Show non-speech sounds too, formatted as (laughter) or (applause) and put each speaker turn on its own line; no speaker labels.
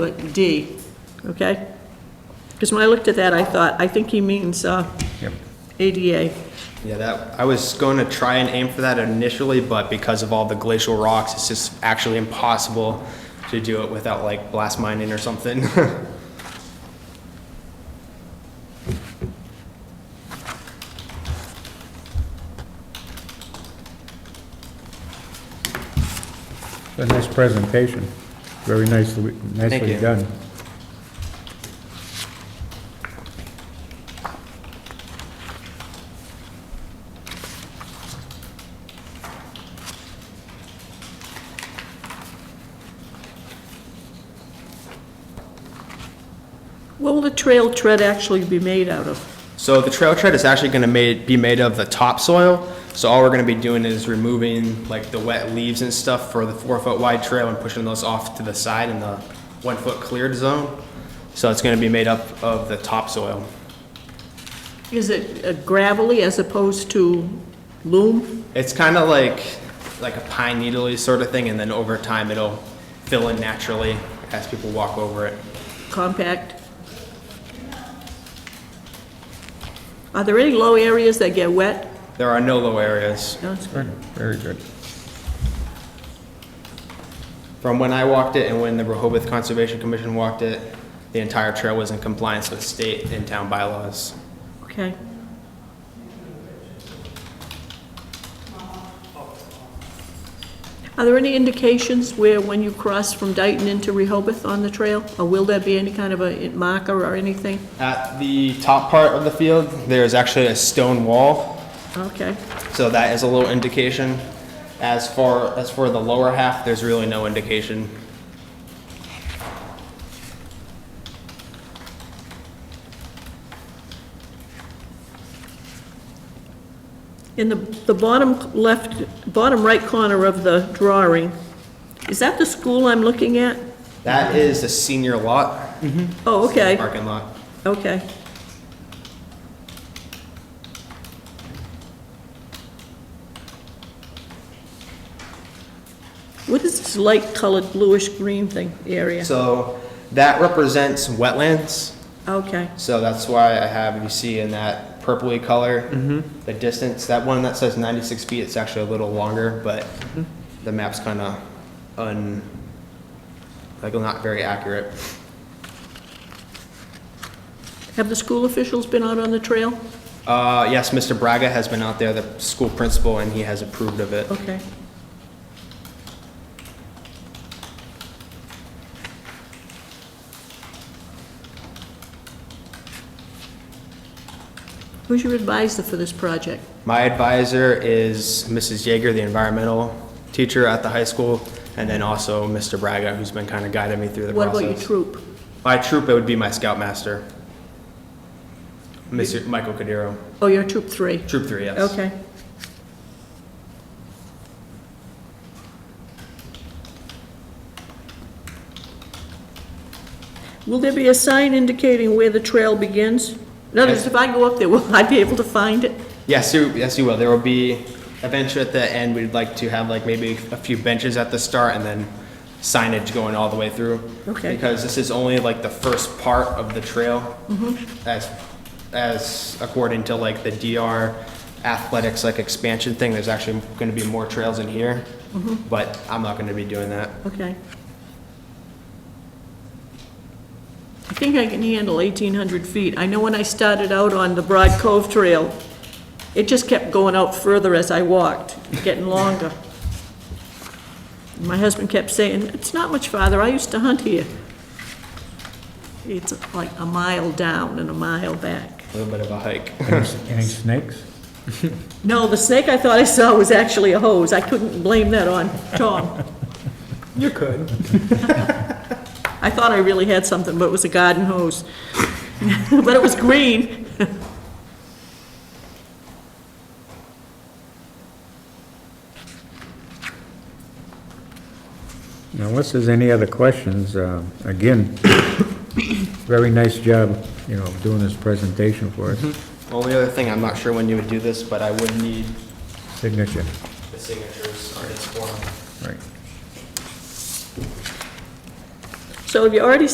but D, okay? Because when I looked at that, I thought, I think he means uh,
Yep.
ADA.
Yeah, that, I was going to try and aim for that initially, but because of all the glacial rocks, it's just actually impossible to do it without like blast mining or something. (laughs)
A nice presentation, very nicely, nicely
you.
done.
What will the trail tread actually be made out of?
So the trail tread is actually going to be made of the topsoil. So all we're going to be doing is removing like the wet leaves and stuff for the four foot wide trail and pushing those off to the side in the one foot cleared zone. So it's going to be made up of the topsoil.
Is it uh, gravelly as opposed to loom?
It's kind of like, like a pine needly sort of thing, and then over time it'll fill in naturally as people walk over it.
compact? Are there any low areas that get wet?
There are no low areas.
No, it's-
Good, very good.
From when I walked it and when the Rehoboth Conservation Commission walked it, the entire trail was in compliance with state and town bylaws.
Okay. Are there any indications where, when you cross from Dayton into Rehoboth on the trail? Or will there be any kind of a marker or anything?
At the top part of the field, there is actually a stone wall,
Okay.
so that is a little indication. As far as for the lower half, there's really no indication.
In the, the bottom left, bottom right corner of the drawing, is that the school I'm looking at?
That is the senior lot,
Oh, okay.
parking lot.
Okay. What is this light colored bluish green thing area?
So that represents wetlands.
Okay,
So that's why I have, you see in that purpley color, the distance, that one that says 96 feet, it's actually a little longer, but the map's kind of un, like not very accurate.
have the school officials been out on the trail?
Uh, yes, Mr. Braga has been out there, the school principal, and he has approved of it.
Okay. Who's your advisor for this project?
My advisor is Mrs. Yeager, the environmental teacher at the high school, and then also Mr. Braga, who's been kind of guiding me through the
What
process.
about your troop?
My troop, it would be my scoutmaster, Mr. Michael Cordero.
Oh, you're troop three?
Troop three, yes.
Okay. Will there be a sign indicating where the trail begins? In other words, if I go up there, will I be able to find it?
Yes, you, yes, you will. There will be a bench at the end. We'd like to have like maybe a few benches at the start and then signage going all the way through.
Okay.
Because this is only like the first part of the trail.
Mm-hmm.
As, as according to like the DR athletics like expansion thing, there's actually gonna be more trails in here.
Mm-hmm.
But I'm not gonna be doing that.
Okay. I think I can handle 1,800 feet. I know when I started out on the Broad Cove Trail, it just kept going out further as I walked, getting longer. My husband kept saying, "It's not much farther. I used to hunt here." It's like a mile down and a mile back.
A little bit of a hike.
Any any snakes?
No, the snake I thought I saw was actually a hose. I couldn't blame that on Tom.
You could.
(laughs) I thought I really had something, but it was a garden hose. (laughs) But it was green. (laughs)
Now, Unless there's any other questions, uh, again, (coughs) very nice job, you know, doing this presentation for us,
Only other thing, I'm not sure when you would do this, but I would need
signature.
the signatures on this form.
Right.
So have you already